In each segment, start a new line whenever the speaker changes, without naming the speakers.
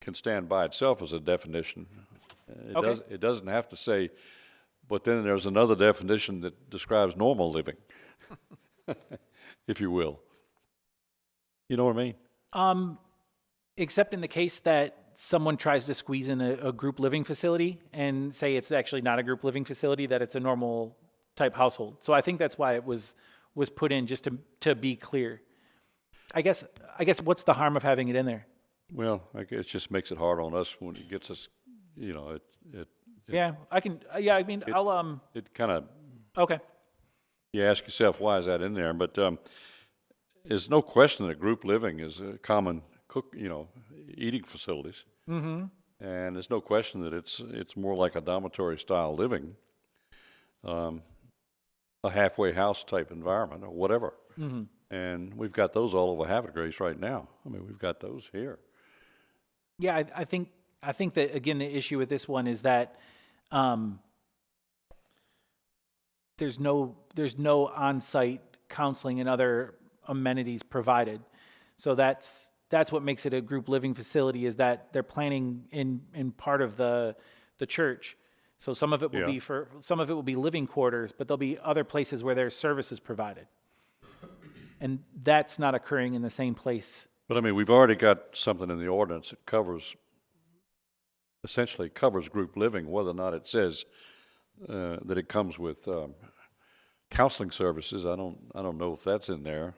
can stand by itself as a definition. It
Okay.
does, it doesn't have to say, but then there's another definition that describes normal living, if you will. You know what I mean?
Um, except in the case that someone tries to squeeze in a, a group living facility and say it's actually not a group living facility, that it's a normal type household. So I think that's why it was was put in just to to be clear. I guess I guess what's the harm of having it in there?
Well, I guess it just makes it hard on us when it gets us, you know, it, it,
Yeah, I can. Yeah, I mean, I'll um.
it kind of
Okay.
You ask yourself, why is that in there? But um, there's no question that group living is a common cook, you know, eating facilities. Mm-hmm. And there's no question that it's it's more like a dormitory style living, um, a halfway house type environment or whatever.
Mm-hmm.
And we've got those all over Havoc Grace right now. I mean, we've got those here.
Yeah, I, I think I think that again the issue with this one is that um, there's no there's no on-site counseling and other amenities provided. So that's that's what makes it a group living facility is that they're planning in in part of the the church. So some of it will
Yeah.
be for some of it will be living quarters, but there'll be other places where there's services provided. And that's not occurring in the same place.
But I mean, we've already got something in the ordinance that covers, essentially covers group living, whether or not it says uh, that it comes with um, counseling services. I don't, I don't know if that's in there.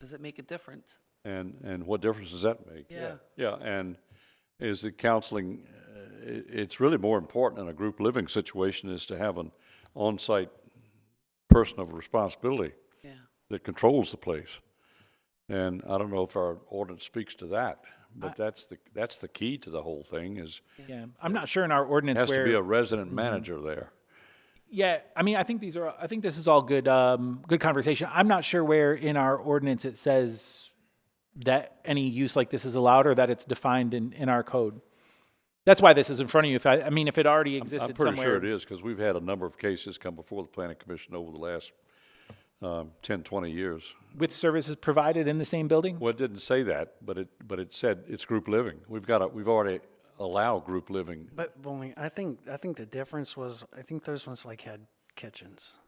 Does it make a difference?
And, and what difference does that make?
Yeah.
Yeah, and is the counseling, uh, i- it's really more important in a group living situation is to have an on-site person of responsibility
Yeah.
that controls the place. And I don't know if our ordinance speaks to that, but that's the, that's the key to the whole thing is,
Yeah, I'm not sure in our ordinance
has
where Mm-hmm.
to be a resident manager there.
Yeah, I mean, I think these are, I think this is all good, um, good conversation. I'm not sure where in our ordinance it says that any use like this is allowed or that it's defined in, in our code. That's why this is in front of you. If I, I mean, if it already
I'm
existed
pretty sure it
somewhere.
is, because we've had a number of cases come before the planning commission over the last, um, ten, twenty years.
With services provided in the same building?
Well, it didn't say that, but it, but it said it's group living. We've got a, we've already allow group living.
But Bonnie, I think I think the difference was I think those ones like had kitchens,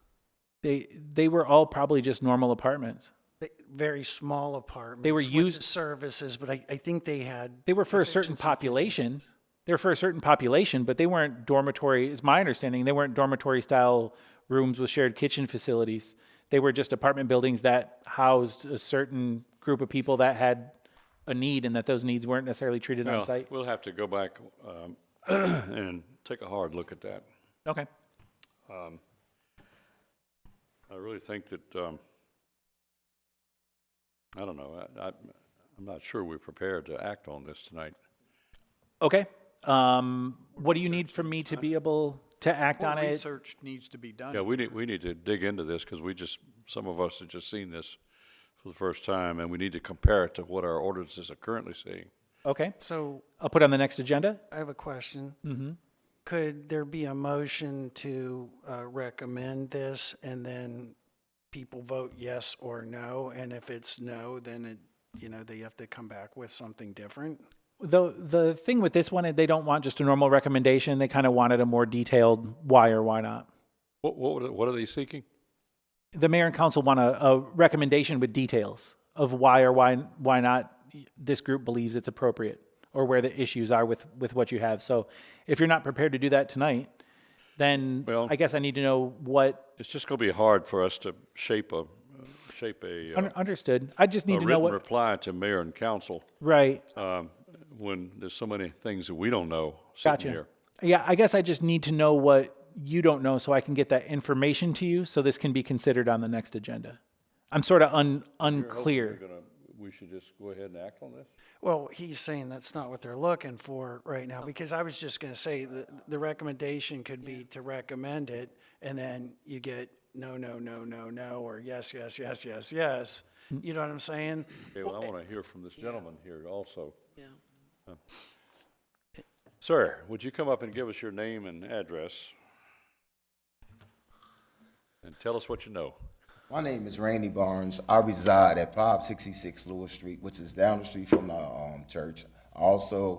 They, they were all probably just normal apartments.
They- very small apartments.
were
with the
used-
services, but I, I think they had
They were for a certain population. They were for a certain population, but they weren't dormitory, is my understanding. They weren't dormitory style rooms with shared kitchen facilities. They were just apartment buildings that housed a certain group of people that had a need and that those needs weren't necessarily treated on
Well,
site.
We'll have to go back, um, and take a hard look at that.
Okay.
Um, I really think that, um, I don't know, I, I, I'm not sure we're prepared to act on this tonight.
Okay. Um, what do you need from me to be able to act on
More
it?
research needs to be done.
Yeah, we need, we need to dig into this, because we just, some of us have just seen this for the first time, and we need to compare it to what our ordinances are currently seeing.
Okay.
So
I'll put it on the next agenda. Mm-hmm.
I have a question. Could there be a motion to uh, recommend this, and then people vote yes or no? And if it's no, then it you know they have to come back with something different.
The the thing with this one, is they don't want just a normal recommendation. They kind of wanted a more detailed why or why not.
What, what, would it- what are they seeking?
the mayor and council want a, a recommendation with details of why or why why not this group believes it's appropriate or where the issues are with with what you have. So if you're not prepared to do that tonight, then
Well-
I guess I need to know what
It's just gonna be hard for us to shape a, shape a, uh,
un- understood. I just
a
need to know
written
what
reply to mayor and council,
right.
um, when there's so many things that we don't know sitting here.
Yeah, I guess I just need to know what you don't know so I can get that information to you so this can be considered on the next agenda. I'm sort of un- unclear.
Gonna- We should just go ahead and act on this?
Well, he's saying that's not what they're looking for right now, because I was just gonna say, the, the recommendation could be to recommend it, and then you get no, no, no, no, no, or yes, yes, yes, yes, yes. You know what I'm saying?
Okay, well, I want to hear from this gentleman here also.
Yeah.
Sir, would you come up and give us your name and address? And tell us what you know.
My name is Randy Barnes. I reside at 566 Lewis Street, which is down the street from the um, church. I Also,